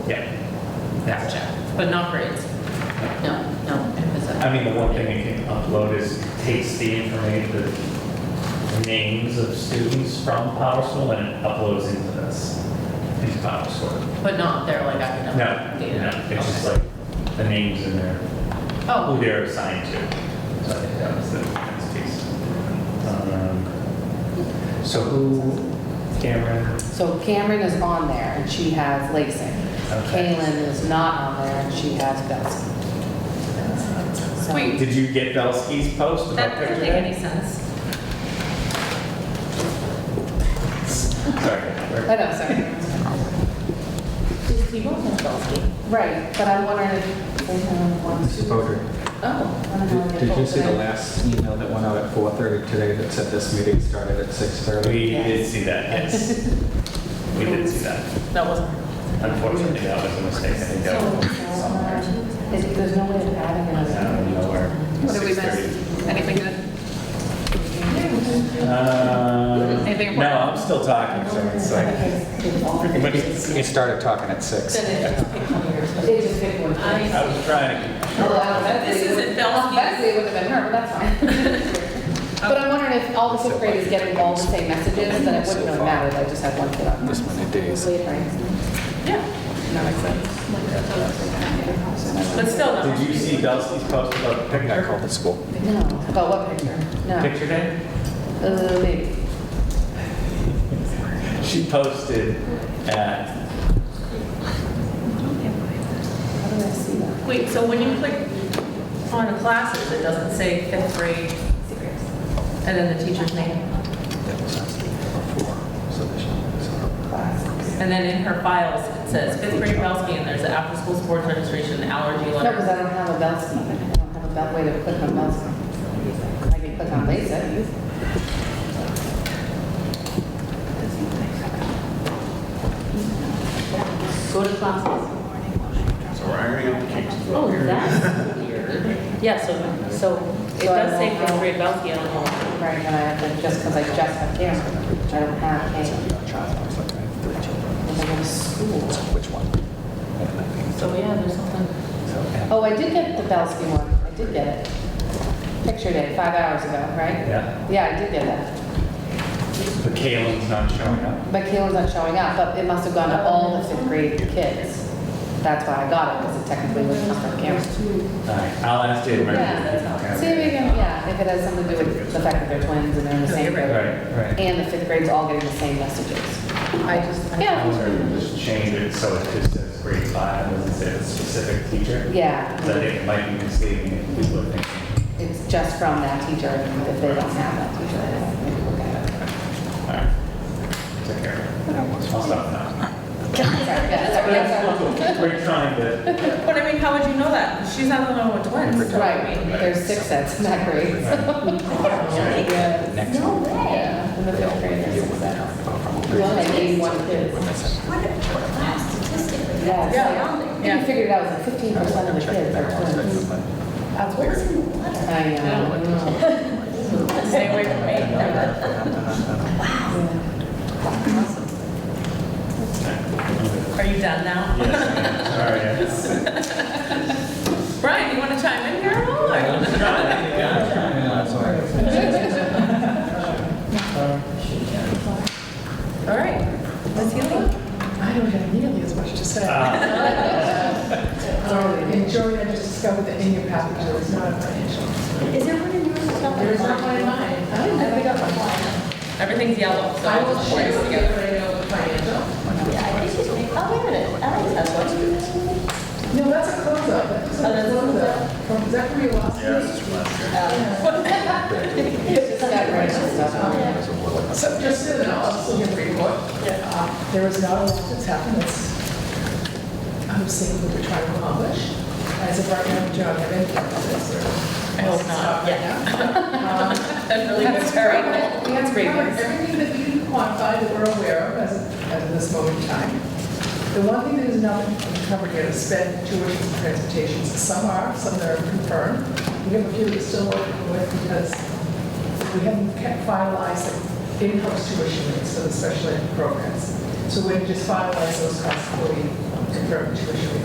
Yeah. Gotcha. But not grades? No, no. it was a- I mean, the one thing it can upload is takes the information, the names of students from PowerSchool and it uploads into this, into PowerSchool. But not their like No, academic no, data? it's just Okay. like the names in there, who Oh, they're assigned to. So I think that was the next piece. Um, So who, Cameron, So Cameron is on there and she has LASIK. Okay. Kaylin is not on there and she has Betsy. So- Wait. did you get Belsky's post about that picture doesn't make any sense. I Sorry. know, sorry. Did people in Belsky? Right, but I'm wondering if they have one. Mrs. Potter, Oh. I don't know if did they did you both see the did. last email that went out at 4:30 today that said this meeting started at 6:30? We did see that, yes. We did see that. That wasn't. Unfortunately, that was a mistake. I think that So, was uh, is- There's no way of adding out another. of nowhere. What did we 6:30. miss? Anything good? Um, Anything important? No, I'm still talking, so it's like. We we started talking at 6. They just picked one. I- I was trying to. Although I don't know if This they would- isn't Belsky. Betsy it would have been her, but that's fine. But I'm wondering if all the fifth graders get all the same messages, then it wouldn't really matter, if I just had one kid up. This many days. Yeah, That makes sense. but still no. Did you see Belsky's post about the I think I picture? called the school. No, about what picture? No. Picture day? Uh, maybe. She posted at, How did I see that? Wait, so when you click on classes, it doesn't say fifth grade and then the teacher's name? That was us. Four. So they should- so- Class. And then in her files, it says fifth grade Belsky and there's the after-school sports registration allergy No, because letter. I don't have a Belsky. I don't have a bel- way to click on Belsky. I can click on LASIK. Go to classes. So we're going to keep Oh, that's weird. Yeah, so, so it So I does say don't fifth know. grade Belsky on all. Right, and I have to, just because I just have Cameron, I don't have a, It's like I have three children. because I go to school. So Which one? And I think So yeah, there's something. so, and- Oh, I did get the Belsky one, I did get it. Picture day, five hours ago, right? yeah, Yeah, I did get that. but Kaylin's not showing up. But Kayla's not showing up, but it must have gone to all the fifth grade kids. That's why I got it, because it technically was not from Cameron. All right, I'll ask Dave Murphy. Yeah, see, we can, yeah, if it has something to do with the fact that they're twins and they're in the same grade. Right, right. And the fifth grade's all getting the same messages. I just. I was Yeah, going to just change it so it just says grade five, doesn't say a specific teacher. But I yeah, think it might be misleading if people are thinking. it's just from that teacher, and if they don't have that teacher, they don't maybe look at it. All right, take care. I'll stop now. Sorry, yeah, But sorry, yeah, that's sorry. cool, cool. We're trying to, But I mean, how would you know that? She's not the one with twins. Right, there's six sets in that grade. Yeah. Next No one. way. Yeah, in the They'll fifth grade, deal with there's that. sets. Probably. There's only eighty-one kids. What a class statistically, Yeah, it's that's like- astounding. You figured it out, it's like fifteen percent of the kids are twins. That's What was in the letter? I know. Stay away from me. Are you done now? yes, sorry. Brian, you want to chime in here at all? or- All right. Let's hear it. I don't have nearly as much to say. Uh, Um, And Joey, I just discovered that in your package, there was not a financial. Is there one in yours? There is not one in mine. I don't think I got one. Everything's yellow, so I I'll will just share place with you together. when I know the financial. Yeah, I think it's me. Oh, wait a minute, Alex has one. No, that's a closeout, Oh, that's that's a a closeout. From, is that from your last Yeah, meeting? this is last year. It's just that grade Um, stuff. So just so that I'll also give a report. Uh, There is not a lot that's happened that's, I'm seeing what we're trying to accomplish. As of right now, Joe, I have any this or. I hope not, yeah. That really was Um, That's terrible. correct. We have Great covered news. everything that we can quantify that we're aware of as, as of this moment in time. The one thing that is not covered yet is sped tuition and transportations. Some are, some that are confirmed. We have a few that still working with because we haven't kept finalized the in-house tuition rates for the special ed programs. So we're just finalize those costs before we um, confirmed tuition